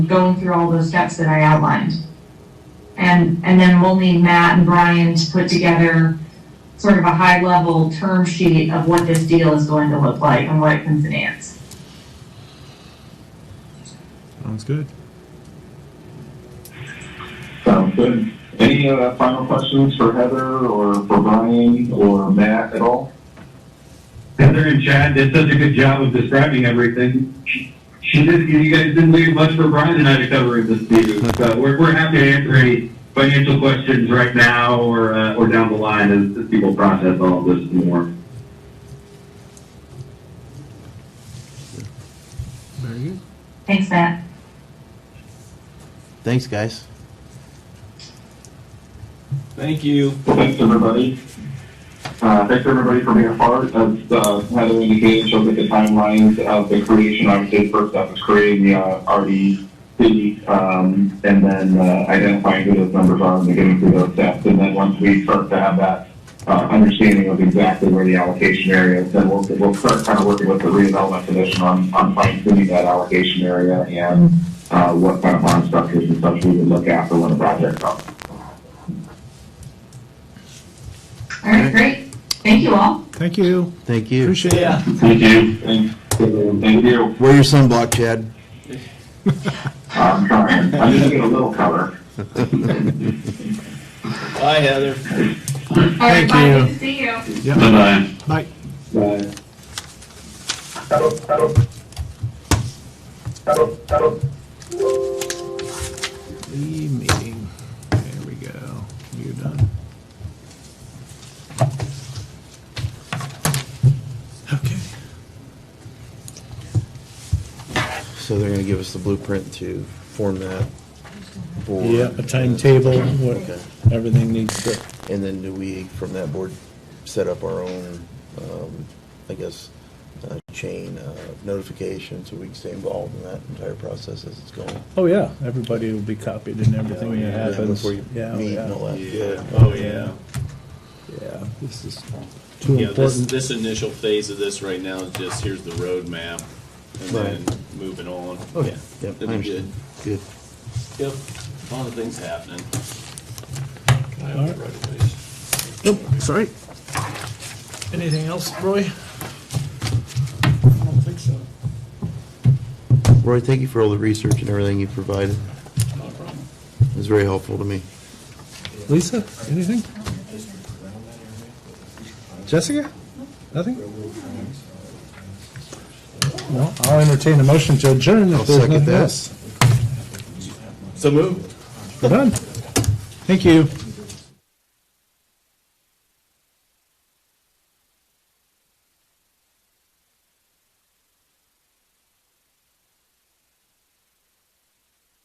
going through all those steps that I outlined. And, and then we'll need Matt and Brian to put together sort of a high-level term sheet of what this deal is going to look like and what it can finance. Sounds good. Sounds good. Any uh, final questions for Heather or for Brian or Matt at all? Heather and Chad did such a good job of describing everything. She- She did, you guys didn't leave much for Brian and I to cover in this meeting. So we're, we're happy to answer any financial questions right now or, uh, or down the line as, as people process all of this and more. Very good. Thanks, Matt. Thanks, guys. Thank you. Thanks, everybody. Uh, Thanks, everybody, for being a part. As uh, Heather indicated, she'll get the timelines of the creation. Obviously, the first step is creating the uh, RDP, um, and then uh, identifying who those numbers are and getting through those steps. And then once we start to have that uh, understanding of exactly where the allocation area is, then we'll, we'll start kind of working with the redevelopment commission on, on fine tuning that allocation area and uh, what kind of bond structures and such we would look after when a project comes. All right, great. Thank you all. Thank you. Thank you. Appreciate it. Yeah. Thank you. Thank thank you. Wear your sunblock, Chad. I'm trying. I'm just getting a little color. Bye, Heather. All Thank right, bye. you. Good to see you. Yep. Bye. Bye. The meeting. There we go. You're done. Okay. So they're gonna give us the blueprint to form that board. Yep, a timetable, what, Okay. everything needs to, And then do we, from that board, set up our own, um, I guess, uh, chain of notification so we can stay involved in that entire process as it's going? oh yeah, everybody will be copied and everything that happens. Before you meet Yeah, oh, and all yeah. that. Yeah. Oh, yeah. Yeah, this is too You know, this, important. this initial phase of this right now is just, here's the roadmap, and then moving on. Oh, yeah. That'd Yep, I be good. understand. Good. Yep, a lot of things happening. All right. Nope, sorry. Anything else, Roy? Roy, thank you for all the research and everything you provided. It was very helpful to me. Lisa, anything? Jessica? Nothing? Well, I'll entertain a motion to adjourn I'll if there's nothing second that. else. So move. We're done. Thank you.